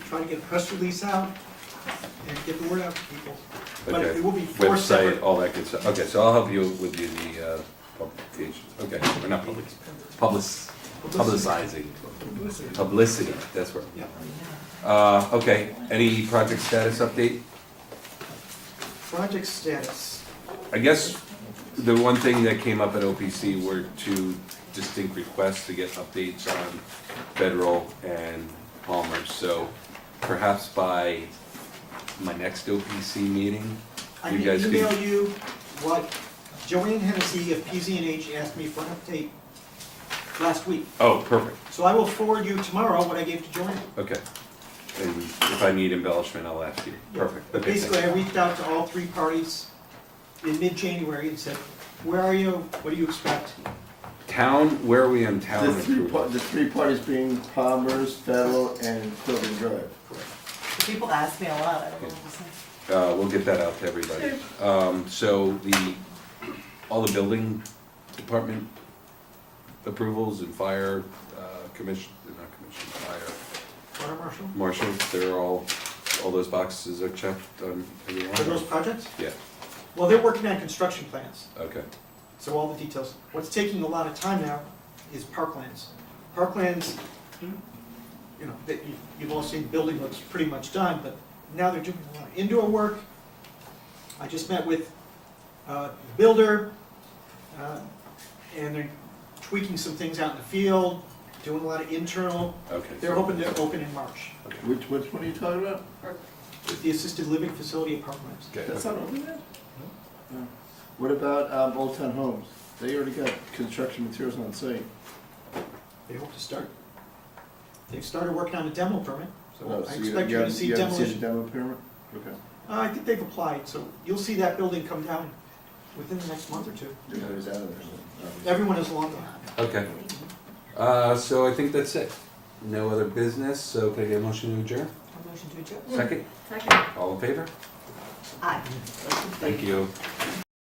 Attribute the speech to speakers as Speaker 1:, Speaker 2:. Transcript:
Speaker 1: try to get a press release out and get the word out to people. But
Speaker 2: Okay.
Speaker 1: it will be four
Speaker 2: Website,
Speaker 1: separate.
Speaker 2: all that good stuff. Okay, so I'll help you with the, the uh, publications. Okay, or not public, public, publicizing,
Speaker 1: Publicity.
Speaker 2: publicity, that's where.
Speaker 1: Yeah,
Speaker 2: Uh, okay, any project status update?
Speaker 1: project status.
Speaker 2: I guess the one thing that came up at OPC were two distinct requests to get updates on Federal and Palmer. So perhaps by my next OPC meeting,
Speaker 1: I
Speaker 2: You
Speaker 1: can
Speaker 2: guys could-
Speaker 1: email you what Joanne Hennessy of PZNH asked me for an update last week.
Speaker 2: oh, perfect,
Speaker 1: So I will forward you tomorrow what I gave to Joanne.
Speaker 2: okay. And if I need embellishment, I'll ask you. Perfect, okay, thank
Speaker 1: Basically,
Speaker 2: you.
Speaker 1: I reached out to all three parties in mid-January and said, where are you? What do you expect?
Speaker 2: Town, where are we in town?
Speaker 3: The three, par-
Speaker 2: approval?
Speaker 3: the three parties being Palmer's, Federal, and Quilton Drive.
Speaker 4: People ask me a lot, I don't know what to say.
Speaker 2: Uh, we'll get that out to everybody. Um, so the, all the building department approvals and fire, uh, commission, not commission, fire,
Speaker 1: Water marshal?
Speaker 2: marshal, they're all, all those boxes are checked on every
Speaker 1: For those
Speaker 2: one?
Speaker 1: projects?
Speaker 2: Yeah,
Speaker 1: Well, they're working on construction plans,
Speaker 2: okay,
Speaker 1: so all the details. What's taking a lot of time now is parklands. Parklands, you know, that you- you've all seen, the building looks pretty much done, but now they're doing a lot of indoor work. I just met with uh, the builder, uh, and they're tweaking some things out in the field, doing a lot of internal.
Speaker 2: okay.
Speaker 1: They're hoping to open in March,
Speaker 3: Which, which one are you talking about?
Speaker 1: with the assisted living facility at Parklands.
Speaker 2: Okay,
Speaker 3: That's not open yet? No. What about, um, Old Town Homes? They already got construction materials on site.
Speaker 1: They hope to start. They've started working on a demo permit,
Speaker 3: Oh,
Speaker 1: so I
Speaker 3: so you-
Speaker 1: expect you to
Speaker 3: haven't-
Speaker 1: see
Speaker 3: you haven't
Speaker 1: demolition.
Speaker 3: seen the demo permit? Okay.
Speaker 1: Uh, I think they've applied, so you'll see that building come down within the next month or two.
Speaker 3: There's always out of there. Obviously.
Speaker 1: Everyone is along the,
Speaker 2: okay. Uh, so I think that's it. No other business, so can I get a motion to adjourn?
Speaker 4: A motion to adjourn?
Speaker 2: Second,
Speaker 5: Second.
Speaker 2: all in favor?
Speaker 4: Aye.
Speaker 2: Thank you.